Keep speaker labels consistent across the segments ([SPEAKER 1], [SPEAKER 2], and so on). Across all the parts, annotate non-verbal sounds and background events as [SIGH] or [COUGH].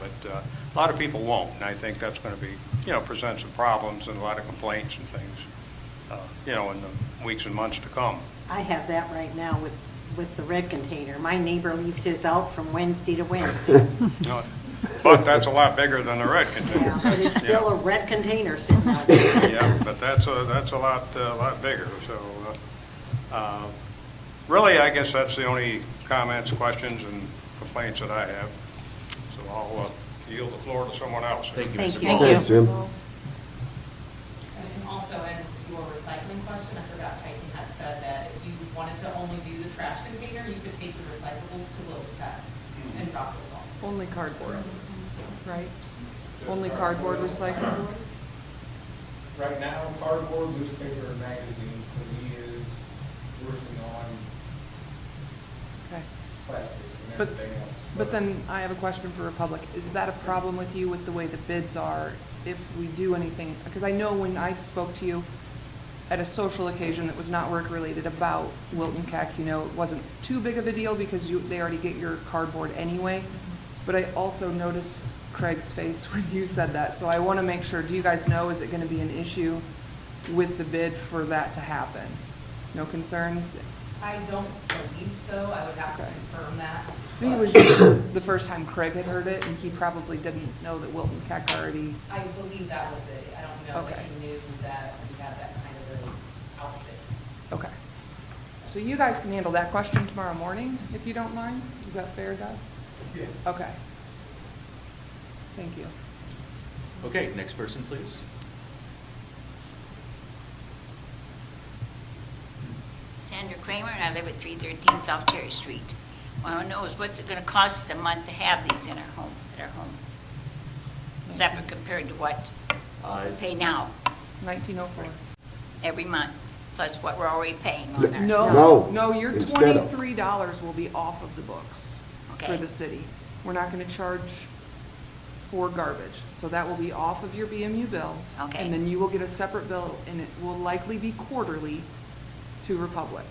[SPEAKER 1] but uh, a lot of people won't, and I think that's going to be, you know, present some problems and a lot of complaints and things, uh, you know, in the weeks and months to come.
[SPEAKER 2] I have that right now with, with the red container. My neighbor leaves his out from Wednesday
[SPEAKER 1] [LAUGHS]
[SPEAKER 2] to Wednesday.
[SPEAKER 1] You know, But that's a lot bigger than the red container.
[SPEAKER 2] Yeah, But it's
[SPEAKER 1] Yeah.
[SPEAKER 2] still a red container sitting out there.
[SPEAKER 1] Yeah, but that's a, that's a lot, a lot bigger, so, uh, uh, really, I guess that's the only comments, questions, and complaints that I have. So I'll uh, yield the floor to someone else.
[SPEAKER 3] Thank you,
[SPEAKER 2] Thank
[SPEAKER 3] Mr.
[SPEAKER 2] you.
[SPEAKER 3] Paul.
[SPEAKER 4] Thanks, Jim.
[SPEAKER 5] And then also, in your recycling question, I forgot Tyson had said that if you wanted to only do the trash container, you could take the recyclables to Willoughby Pet and drop those off.
[SPEAKER 6] Only cardboard, right? Only cardboard recycling?
[SPEAKER 7] Right now, cardboard, newspaper, and magazines, but he is working on
[SPEAKER 6] Okay.
[SPEAKER 7] plastics and
[SPEAKER 6] But,
[SPEAKER 7] everything else.
[SPEAKER 6] but then I have a question for Republic. Is that a problem with you with the way the bids are if we do anything? Because I know when I spoke to you at a social occasion that was not work-related about Wilton Keck, you know, it wasn't too big of a deal because you, they already get your cardboard anyway. But I also noticed Craig's face [LAUGHS] when you said that, so I want to make sure, do you guys know, is it going to be an issue with the bid for that to happen? No concerns?
[SPEAKER 5] I don't believe so, I would have to
[SPEAKER 6] Okay.
[SPEAKER 5] confirm that.
[SPEAKER 6] I think it was
[SPEAKER 5] but
[SPEAKER 6] just the first time Craig had heard it, and he probably didn't know that Wilton Keck already,
[SPEAKER 5] I believe that was it, I don't know that
[SPEAKER 6] Okay.
[SPEAKER 5] he knew that we had that kind of an outfit.
[SPEAKER 6] okay. So you guys can handle that question tomorrow morning, if you don't mind? Is that fair, Doug?
[SPEAKER 7] Yeah.
[SPEAKER 6] Okay. Thank you.
[SPEAKER 3] Okay, next person, please.
[SPEAKER 8] Sandra Kramer, and I live at 313 South Cherry Street. Well, who knows, what's it going to cost us a month to have these in our home, at our home? Separate compared to what
[SPEAKER 3] Uh,
[SPEAKER 8] we pay now,
[SPEAKER 6] Nineteen oh four.
[SPEAKER 8] every month, plus what we're already paying on our.
[SPEAKER 6] No,
[SPEAKER 4] No,
[SPEAKER 6] no, your
[SPEAKER 4] instead of-
[SPEAKER 6] twenty-three dollars will be off of the books for
[SPEAKER 8] Okay.
[SPEAKER 6] the city. We're not gonna charge for garbage, so that will be off of your BMU bill.
[SPEAKER 8] Okay.
[SPEAKER 6] And then you will get a separate bill, and it will likely be quarterly to Republic,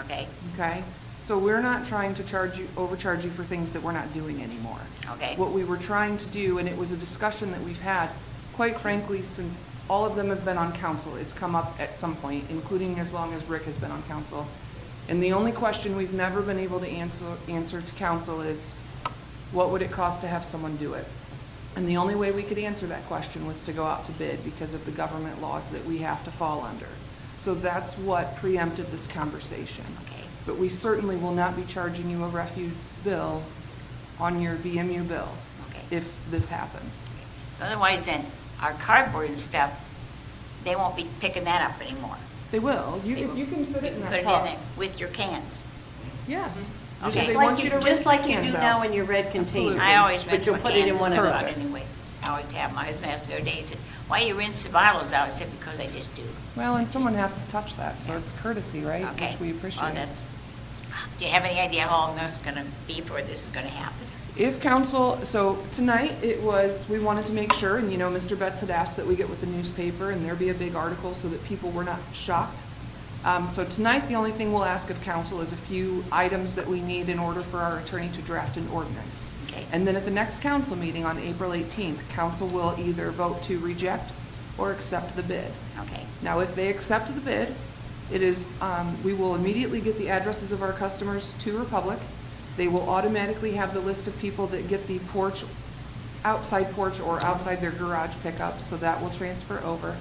[SPEAKER 8] Okay,
[SPEAKER 6] okay? So we're not trying to charge you, overcharge you for things that we're not doing anymore.
[SPEAKER 8] Okay.
[SPEAKER 6] What we were trying to do, and it was a discussion that we've had, quite frankly, since all of them have been on council, it's come up at some point, including as long as Rick has been on council. And the only question we've never been able to answer, answer to council is, what would it cost to have someone do it? And the only way we could answer that question was to go out to bid because of the government laws that we have to fall under. So that's what preempted this conversation.
[SPEAKER 8] Okay.
[SPEAKER 6] But we certainly will not be charging you a refuge bill on your BMU bill
[SPEAKER 8] Okay.
[SPEAKER 6] if this happens.
[SPEAKER 8] So otherwise then, our cardboard and stuff, they won't be picking that up anymore.
[SPEAKER 6] They will. You,
[SPEAKER 8] They
[SPEAKER 6] if
[SPEAKER 8] will-
[SPEAKER 6] you can fit it in
[SPEAKER 8] Put
[SPEAKER 6] that
[SPEAKER 8] it
[SPEAKER 6] top.
[SPEAKER 8] in there with your cans.
[SPEAKER 6] Yes.
[SPEAKER 8] Okay.
[SPEAKER 6] Just
[SPEAKER 2] Mm-hmm. Just
[SPEAKER 6] they
[SPEAKER 2] like
[SPEAKER 6] want
[SPEAKER 2] you-
[SPEAKER 6] to rinse
[SPEAKER 2] Just like
[SPEAKER 6] your
[SPEAKER 2] you do
[SPEAKER 6] cans
[SPEAKER 2] now
[SPEAKER 6] out.
[SPEAKER 2] in your red container.
[SPEAKER 6] Absolutely.
[SPEAKER 8] I always
[SPEAKER 2] But
[SPEAKER 8] rinse
[SPEAKER 2] you'll
[SPEAKER 8] my
[SPEAKER 2] put it in
[SPEAKER 8] cans
[SPEAKER 2] one of
[SPEAKER 8] out
[SPEAKER 2] those.
[SPEAKER 8] anyway. I always have, my husband asked the other day, he said, why you rinse the bottles out? I said, because I just do.
[SPEAKER 6] Well, and someone has to touch that, so it's courtesy, right?
[SPEAKER 8] Okay.
[SPEAKER 6] Which we appreciate.
[SPEAKER 8] Well, that's, do you have any idea how long this is gonna be before this is gonna happen?
[SPEAKER 6] If council, so tonight, it was, we wanted to make sure, and you know, Mr. Betts had asked that we get with the newspaper and there be a big article so that people were not shocked. Um, so tonight, the only thing we'll ask of council is a few items that we need in order for our attorney to draft an ordinance.
[SPEAKER 8] Okay.
[SPEAKER 6] And then at the next council meeting on April eighteenth, council will either vote to reject or accept the bid.
[SPEAKER 8] Okay,
[SPEAKER 6] Now, if they accept the bid, it is, um, we will immediately get the addresses of our customers to Republic. They will automatically have the list of people that get the porch, outside porch or outside their garage pickup, so that will transfer over.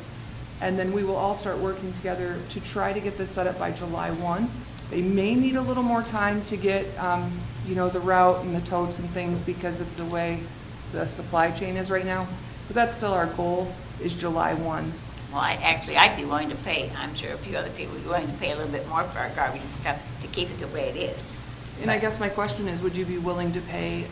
[SPEAKER 6] And then we will all start working together to try to get this set up by July one. They may need a little more time to get, um, you know, the route and the totes and things because of the way the supply chain is right now. But that's still our goal, is July one.
[SPEAKER 8] well, I, actually, I'd be willing to pay, I'm sure a few other people would be willing to pay a little bit more for our garbage and stuff to keep it the way it is.
[SPEAKER 6] And I guess my question is, would you be willing to pay?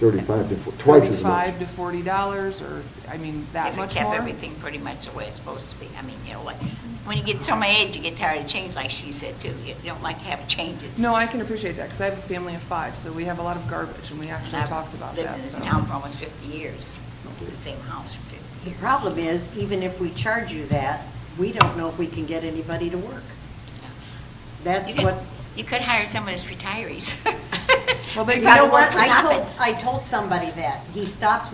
[SPEAKER 4] 35 to, four- twice as much.
[SPEAKER 6] Thirty-five to forty dollars, or, I mean, that
[SPEAKER 8] If
[SPEAKER 6] much
[SPEAKER 8] it
[SPEAKER 6] more?
[SPEAKER 8] kept everything pretty much the way it's supposed to be, I mean, you know, like, when you get so my age, you get tired of change, like she said too, you don't like to have [LAUGHS] changes.
[SPEAKER 6] No, I can appreciate that, because I have a family of five, so we have a lot of garbage, and we actually talked about
[SPEAKER 8] Lived
[SPEAKER 6] that,
[SPEAKER 8] in this
[SPEAKER 6] so.
[SPEAKER 8] town for almost fifty years, it's the same house for fifty
[SPEAKER 2] The
[SPEAKER 8] years.
[SPEAKER 2] problem is, even if we charge you that, we don't know if we can get anybody to work. That's
[SPEAKER 8] You could-
[SPEAKER 2] what,
[SPEAKER 8] [LAUGHS] You could hire some of those retirees.
[SPEAKER 6] Well, they
[SPEAKER 2] You
[SPEAKER 6] got
[SPEAKER 2] know
[SPEAKER 6] it
[SPEAKER 2] what?
[SPEAKER 6] worth
[SPEAKER 2] I
[SPEAKER 8] nothing.
[SPEAKER 2] told, I told somebody that. He stopped me